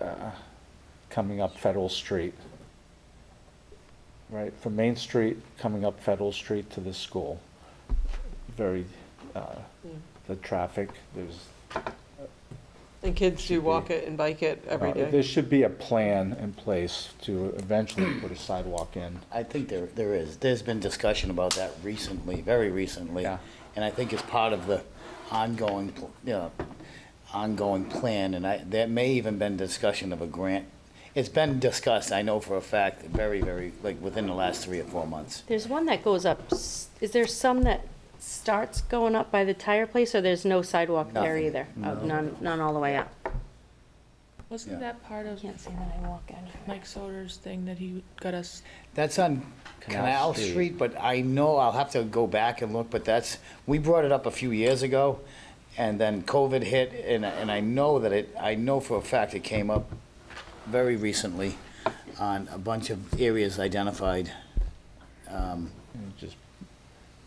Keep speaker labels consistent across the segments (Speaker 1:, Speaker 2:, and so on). Speaker 1: uh, coming up Federal Street. Right, from Main Street coming up Federal Street to the school. Very, uh,
Speaker 2: Hmm.
Speaker 1: the traffic, there's.
Speaker 2: And kids do
Speaker 1: Should be.
Speaker 2: walk it and bike it every
Speaker 1: uh,
Speaker 2: day.
Speaker 1: There should be a plan in place to eventually put a sidewalk in.
Speaker 3: I think there, there is. There's been discussion about that recently, very recently.
Speaker 1: Yeah.
Speaker 3: And I think it's part of the ongoing, pl- you know, ongoing plan, and I, there may even been discussion of a grant. It's been discussed, I know for a fact, very, very, like, within the last three or four months.
Speaker 4: There's one that goes up, s- is there some that starts going up by the tire place, or there's no sidewalk there
Speaker 3: Nothing,
Speaker 4: either? Oh, None, none all the way up?
Speaker 3: Yeah.
Speaker 5: Wasn't that part of
Speaker 4: Can't say that I walk anywhere.
Speaker 5: Mike Soder's thing that he got us?
Speaker 3: That's on
Speaker 1: Canal
Speaker 3: Canal
Speaker 1: Street.
Speaker 3: Street, but I know, I'll have to go back and look, but that's, we brought it up a few years ago, and then COVID hit, and, and I know that it, I know for a fact it came up very recently on a bunch of areas identified.
Speaker 1: And Just,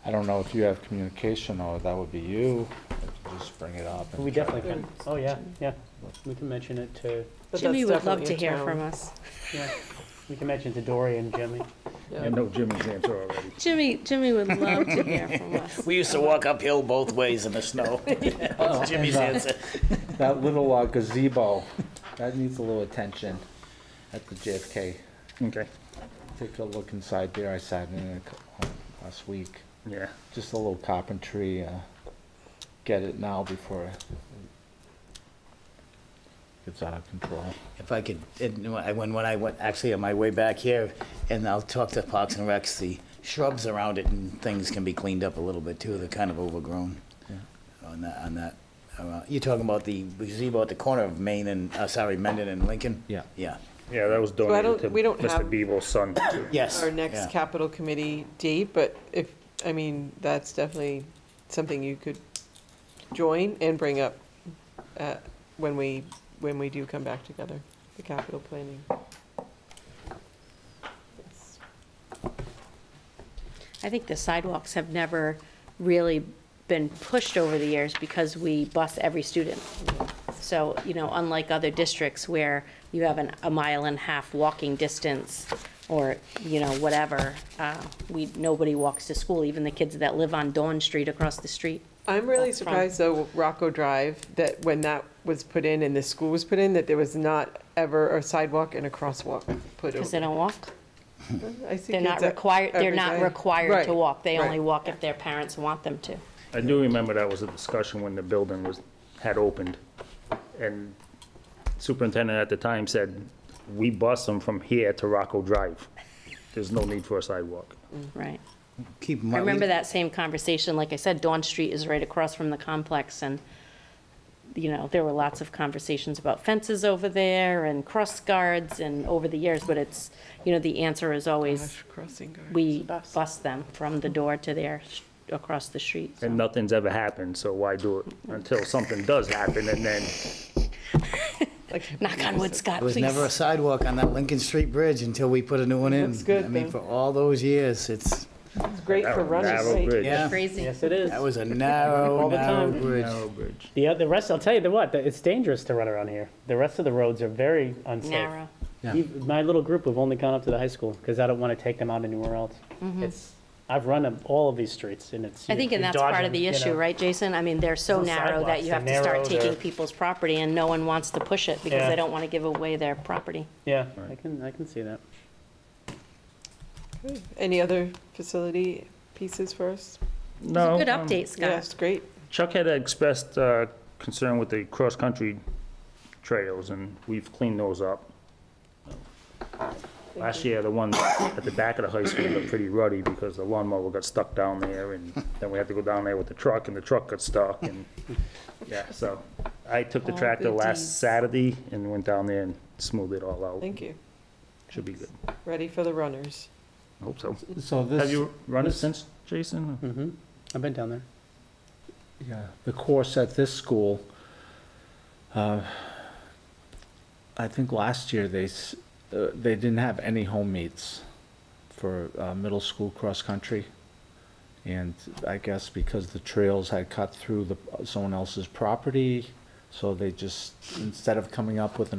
Speaker 1: I don't know if you have communication or that would be you, just bring it up. and
Speaker 6: We
Speaker 1: try-
Speaker 6: definitely can, oh, yeah, yeah, we can mention it to,
Speaker 2: But
Speaker 4: Jimmy
Speaker 2: that's
Speaker 4: would love to
Speaker 2: definitely a
Speaker 4: hear from
Speaker 2: town.
Speaker 4: us.
Speaker 6: yeah, we can mention to Dory and Jimmy.
Speaker 2: Yeah.
Speaker 7: I know Jimmy's answer already.
Speaker 4: Jimmy, Jimmy would love to hear from us.
Speaker 3: We used to walk uphill both ways in the snow. That's Jimmy's answer.
Speaker 1: That little uh, gazebo, that needs a little attention at the JFK.
Speaker 7: Okay,
Speaker 1: Take a look inside there. I sat in it uh, last week.
Speaker 7: yeah.
Speaker 1: Just a little carpentry, uh, get it now before it gets out of control.
Speaker 3: If I could, it- when, when I went, actually on my way back here, and I'll talk to Parks and Recs, the shrubs around it and things can be cleaned up a little bit too, they're kind of overgrown on that, on that. uh, You're talking about the gazebo at the corner of Main and, uh, sorry, Mendon and Lincoln?
Speaker 1: Yeah.
Speaker 3: Yeah,
Speaker 7: Yeah, that was
Speaker 2: I
Speaker 7: donated
Speaker 2: don't-
Speaker 7: to
Speaker 2: we don't have-
Speaker 7: Mr. Beeble's son. too.
Speaker 3: yes.
Speaker 2: Our next
Speaker 3: yeah.
Speaker 2: capital committee date, but if, I mean, that's definitely something you could join and bring up uh, when we, when we do come back together, the capital planning.
Speaker 4: I think the sidewalks have never really been pushed over the years because we bus every student. So, you know, unlike other districts where you have an, a mile and a half walking distance or, you know, whatever, uh, we, nobody walks to school, even the kids that live on Dawn Street across the street.
Speaker 2: I'm really
Speaker 4: That's fun.
Speaker 2: surprised though, Rocco Drive, that when that was put in and the school was put in, that there was not ever a sidewalk and a crosswalk put
Speaker 4: Because they
Speaker 2: over.
Speaker 4: don't walk.
Speaker 2: I see
Speaker 4: They're
Speaker 2: kids
Speaker 4: not
Speaker 2: e-
Speaker 4: required, they're
Speaker 2: every
Speaker 4: not
Speaker 2: day.
Speaker 4: required to
Speaker 2: Right,
Speaker 4: walk. They
Speaker 2: right.
Speaker 4: only walk if their parents want them to.
Speaker 7: I do remember that was a discussion when the building was, had opened. And superintendent at the time said, we bus them from here to Rocco Drive. There's no need for a sidewalk.
Speaker 4: Right.
Speaker 3: Keep in
Speaker 4: I
Speaker 3: mind-
Speaker 4: remember that same conversation, like I said, Dawn Street is right across from the complex, and, you know, there were lots of conversations about fences over there and cross guards and over the years, but it's, you know, the answer is always,
Speaker 2: Gosh, Crossing guard.
Speaker 4: we bus them from the door to their, sh- across the street. so.
Speaker 7: And nothing's ever happened, so why do it until something does happen and then,
Speaker 2: Like-
Speaker 4: Knock on wood, Scott,
Speaker 3: There was never a
Speaker 4: please.
Speaker 3: sidewalk on that Lincoln Street Bridge until we put a new one in.
Speaker 2: Looks good,
Speaker 3: I mean,
Speaker 2: though.
Speaker 3: for all those years, it's,
Speaker 2: It's great for
Speaker 7: Narrow- narrow
Speaker 2: runners.
Speaker 7: bridge.
Speaker 3: yeah,
Speaker 4: Crazy.
Speaker 6: Yes, it is.
Speaker 3: that was a narrow,
Speaker 6: All the
Speaker 3: narrow
Speaker 6: time.
Speaker 3: bridge.
Speaker 6: The, uh, the rest, I'll tell you the what, that it's dangerous to run around here. The rest of the roads are very unsafe.
Speaker 4: Narrow.
Speaker 6: Even- My little group have only gone up to the high school, because I don't want to take them out anywhere else. It's, I've run up all of these streets, and it's.
Speaker 4: Mm-hmm. I think, and
Speaker 6: you're
Speaker 4: that's part of
Speaker 6: dodging,
Speaker 4: the
Speaker 6: you know.
Speaker 4: issue, right, Jason? I mean, they're so
Speaker 6: Those
Speaker 4: narrow that
Speaker 6: sidewalks,
Speaker 4: you have to
Speaker 6: they're
Speaker 4: start
Speaker 6: narrow,
Speaker 4: taking
Speaker 6: they're-
Speaker 4: people's property, and no one wants to push it because
Speaker 6: Yeah.
Speaker 4: they don't want to give away their property.
Speaker 6: Yeah, I can, I can see that.
Speaker 2: Any other facility pieces for us?
Speaker 7: no.
Speaker 4: Good
Speaker 7: um,
Speaker 4: update,
Speaker 2: Yeah,
Speaker 4: Scott.
Speaker 2: it's great.
Speaker 7: Chuck had expressed uh, concern with the cross-country trails, and we've cleaned those up. Last year, the ones at the back of the high school were pretty ruddy because the lawnmower got stuck down there, and then we had to go down there with the truck, and the truck got stuck, and, yeah, so. I took the
Speaker 4: All
Speaker 7: tractor
Speaker 4: good
Speaker 7: last
Speaker 4: deeds.
Speaker 7: Saturday and went down there and smoothed it all out.
Speaker 2: Thank you.
Speaker 7: Should be good.
Speaker 2: Ready for the runners.
Speaker 7: I Hope so.
Speaker 1: So
Speaker 7: Have
Speaker 1: this,
Speaker 7: you run it since, Jason?
Speaker 6: hmm I've been down there.
Speaker 1: yeah, the course at this school, uh, I think last year they, s- uh, they didn't have any home meets for uh, middle school cross-country. And I guess because the trails had cut through the, someone else's property, so they just, instead of coming up with an